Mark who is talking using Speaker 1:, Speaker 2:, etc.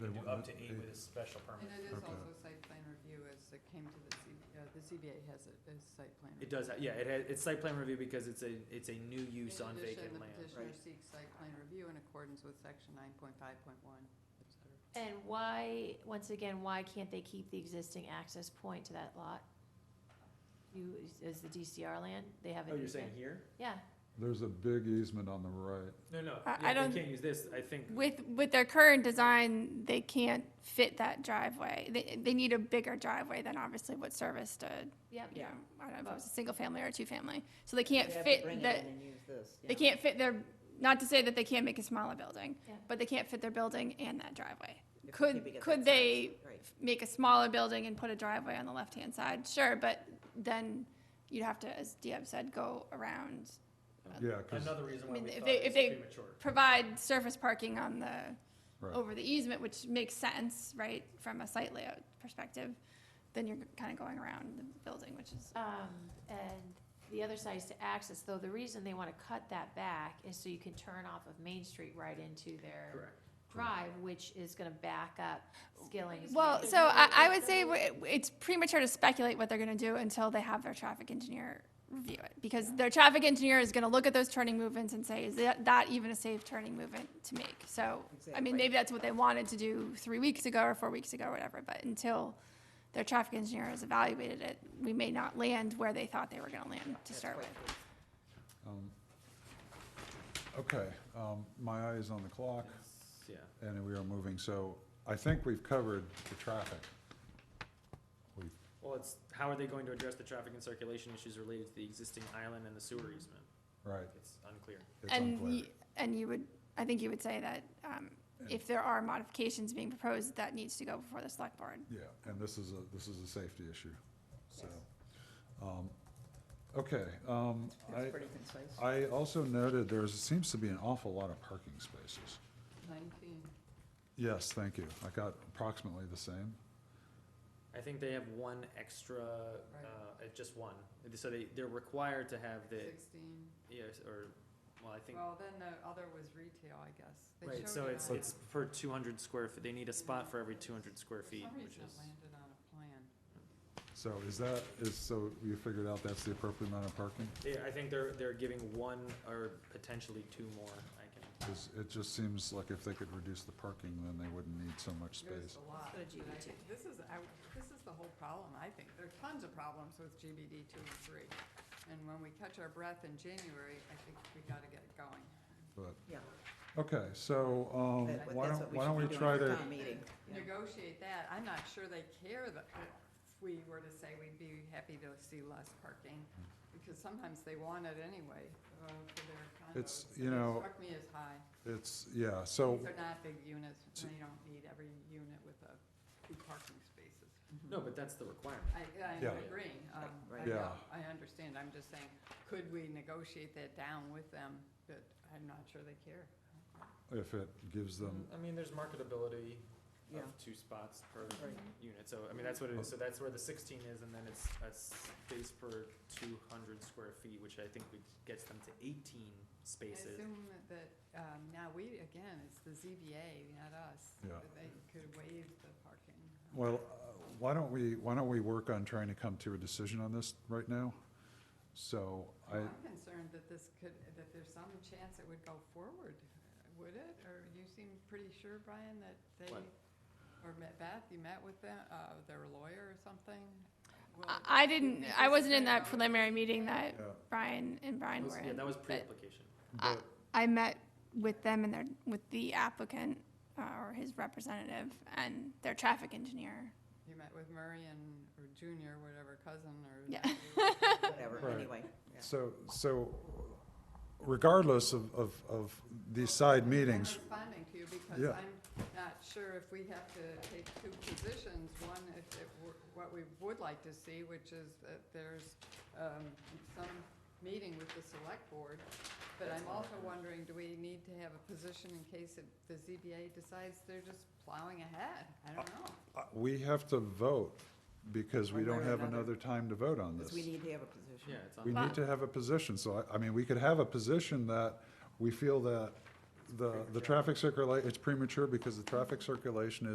Speaker 1: up to eight with a special
Speaker 2: And
Speaker 1: permit.
Speaker 2: it is
Speaker 3: Okay.
Speaker 2: also site plan review as it came to the C, uh, the CBA has it as site plan.
Speaker 1: It does, ha- yeah, it has, it's site plan review because it's a, it's a new
Speaker 2: In
Speaker 1: use on
Speaker 2: addition,
Speaker 1: vacant land.
Speaker 2: The petitioner seeks site plan review in accordance with section nine point five point one, et cetera.
Speaker 4: And why, once again, why can't they keep the existing access point to that lot? You, is the DCR land, they have an
Speaker 1: Oh, you're saying
Speaker 4: easement?
Speaker 1: here?
Speaker 4: Yeah,
Speaker 3: There's a big easement on the right.
Speaker 1: No, no,
Speaker 5: I- I
Speaker 1: yeah,
Speaker 5: don't-
Speaker 1: they can't use this, I think,
Speaker 5: With, with their current design, they can't fit that driveway. They, they need a bigger driveway than obviously what Service did.
Speaker 4: yep.
Speaker 5: You know, I don't know if it was a single family or a two family. So they can't
Speaker 6: They have to
Speaker 5: fit
Speaker 6: bring it
Speaker 5: the,
Speaker 6: in and use this,
Speaker 5: they
Speaker 6: yeah.
Speaker 5: can't fit their, not to say that they can't make a smaller building,
Speaker 4: Yeah.
Speaker 5: but they can't fit their building and that driveway.
Speaker 6: If they
Speaker 5: could-
Speaker 6: keep it at
Speaker 5: could
Speaker 6: that size,
Speaker 5: they-
Speaker 6: right.
Speaker 5: Make a smaller building and put a driveway on the left-hand side, sure, but then you'd have to, as Diab said, go around,
Speaker 3: Yeah, because,
Speaker 1: another reason why
Speaker 5: I mean,
Speaker 1: we
Speaker 5: if
Speaker 1: thought
Speaker 5: they-
Speaker 1: it was
Speaker 5: if they-
Speaker 1: premature.
Speaker 5: provide surface parking on the
Speaker 3: right,
Speaker 5: over the easement, which makes sense, right, from a site layout perspective, then you're kind of going around the building, which is,
Speaker 4: Um, and the other side is to access, though the reason they wanna cut that back is so you can turn off of Main Street right into their
Speaker 1: Correct.
Speaker 4: drive, which is gonna back up Skilling's.
Speaker 5: well,
Speaker 4: Main.
Speaker 5: so I, I would say w- it's premature to speculate what they're gonna do until they have their traffic engineer review it, because their traffic engineer is gonna look at those turning movements and say, is that, that even a safe turning movement to make? So, I
Speaker 6: Exactly.
Speaker 5: mean, maybe that's what they wanted to do three weeks ago or four weeks ago, or whatever, but until their traffic engineer has evaluated it, we may not land where they thought they were gonna land to
Speaker 6: That's
Speaker 5: start with.
Speaker 6: quite good.
Speaker 3: um, okay, um, my eye is on the clock,
Speaker 1: Yeah,
Speaker 3: and we are moving, so I think we've covered the traffic. We've,
Speaker 1: well, it's, how are they going to address the traffic and circulation issues related to the existing island and the sewer easement?
Speaker 3: right,
Speaker 1: It's unclear.
Speaker 3: it's
Speaker 5: And,
Speaker 3: unclear.
Speaker 5: y- and you would, I think you would say that um, if there are modifications being proposed, that needs to go before the select board.
Speaker 3: Yeah, and this is a, this is a safety issue, so. um, Okay, um, I,
Speaker 6: That's pretty concise.
Speaker 3: I also noted there seems to be an awful lot of parking spaces.
Speaker 2: Nineteen.
Speaker 3: Yes, thank you. I got approximately the same.
Speaker 1: I think they have one extra,
Speaker 2: Right.
Speaker 1: uh, uh, just one, so they, they're required to have the,
Speaker 2: Sixteen.
Speaker 1: yes, or, well, I think,
Speaker 2: Well, then the other was retail, I guess. They
Speaker 1: right,
Speaker 2: showed
Speaker 1: so
Speaker 2: it
Speaker 1: it's,
Speaker 2: on-
Speaker 1: it's per two hundred square feet, they need a spot for every two hundred square
Speaker 2: For
Speaker 1: feet,
Speaker 2: some
Speaker 1: which
Speaker 2: reason it
Speaker 1: is.
Speaker 2: landed on a plan.
Speaker 3: So is that, is, so you figured out that's the appropriate amount of parking?
Speaker 1: Yeah, I think they're, they're giving one or potentially two more, I can.
Speaker 3: Because it just seems like if they could reduce the parking, then they wouldn't need so much
Speaker 2: There's
Speaker 3: space.
Speaker 2: a lot.
Speaker 6: Go to
Speaker 2: but I
Speaker 6: GBD.
Speaker 2: think This is, I, this is the whole problem, I think. There are tons of problems with GBD two and three. And when we catch our breath in January, I think we gotta get it going.
Speaker 3: But,
Speaker 6: Yeah.
Speaker 3: okay, so, um,
Speaker 6: That-
Speaker 3: why
Speaker 6: that's
Speaker 3: don't,
Speaker 6: what
Speaker 3: why
Speaker 6: should
Speaker 3: don't
Speaker 6: be
Speaker 3: we
Speaker 6: doing
Speaker 3: try
Speaker 6: for
Speaker 3: to,
Speaker 6: town meeting, yeah.
Speaker 2: Negotiate that. I'm not sure they care that if we were to say we'd be happy to see less parking,
Speaker 3: Mm-hmm.
Speaker 2: because sometimes they want it anyway, uh, for their condos.
Speaker 3: It's, you
Speaker 2: and it
Speaker 3: know-
Speaker 2: Struck me as high.
Speaker 3: it's, yeah, so,
Speaker 2: These are not big units, and they don't need every unit with a, two parking spaces.
Speaker 1: No, but that's the requirement.
Speaker 2: I, I'm
Speaker 3: Yeah.
Speaker 2: agreeing, um, I
Speaker 6: Right.
Speaker 2: know,
Speaker 3: Yeah.
Speaker 2: I understand, I'm just saying, could we negotiate that down with them, but I'm not sure they care.
Speaker 3: if it gives them,
Speaker 1: I mean, there's marketability
Speaker 6: Yeah.
Speaker 1: of two spots per
Speaker 6: Right.
Speaker 1: unit, so, I mean, that's what it is, so that's where the sixteen is, and then it's a space per two hundred square feet, which I think would, gets them to eighteen
Speaker 2: I
Speaker 1: spaces.
Speaker 2: assume that, um, now we, again, it's the ZBA, not us,
Speaker 3: Yeah.
Speaker 2: that they could waive the parking.
Speaker 3: well, uh, why don't we, why don't we work on trying to come to a decision on this right now? So I,
Speaker 2: I'm concerned that this could, that there's some chance it would go forward, would it, or you seem pretty sure, Brian, that they,
Speaker 1: What?
Speaker 2: or Ma- Beth, you met with them, uh, their lawyer or something? Will
Speaker 5: I-
Speaker 2: it-
Speaker 5: I didn't, I wasn't in that
Speaker 2: Yeah.
Speaker 5: preliminary meeting that
Speaker 6: Uh,
Speaker 3: Yeah.
Speaker 5: Brian and Brian
Speaker 1: Was-
Speaker 5: were
Speaker 1: Yeah,
Speaker 5: in.
Speaker 1: that was pre-application.
Speaker 5: I-
Speaker 3: but-
Speaker 5: I met with them and their, with the applicant, uh, or his representative, and their traffic engineer.
Speaker 2: You met with Murray and, or Junior, whatever, cousin, or.
Speaker 5: Yeah.
Speaker 2: nephew.
Speaker 6: Whatever,
Speaker 3: Right.
Speaker 6: anyway, yeah.
Speaker 3: so, so regardless of, of, of these side meetings,
Speaker 2: I'm responding to you because
Speaker 3: Yeah.
Speaker 2: I'm not sure if we have to take two positions. One, if it were, what we would like to see, which is that there's, um, some meeting with the select board. But I'm also wondering, do we need to have a position in case it- the ZBA decides they're just plowing ahead? I don't know.
Speaker 3: uh, we have to vote because we
Speaker 6: One way
Speaker 3: don't
Speaker 6: or
Speaker 3: have
Speaker 6: another.
Speaker 3: another time to vote on this.
Speaker 6: Because we need to have a position.
Speaker 1: Yeah, it's
Speaker 3: We
Speaker 1: on,
Speaker 3: need to have a position, so I, I mean, we could have a position that we feel that the, the traffic circula, it's premature because the traffic circulation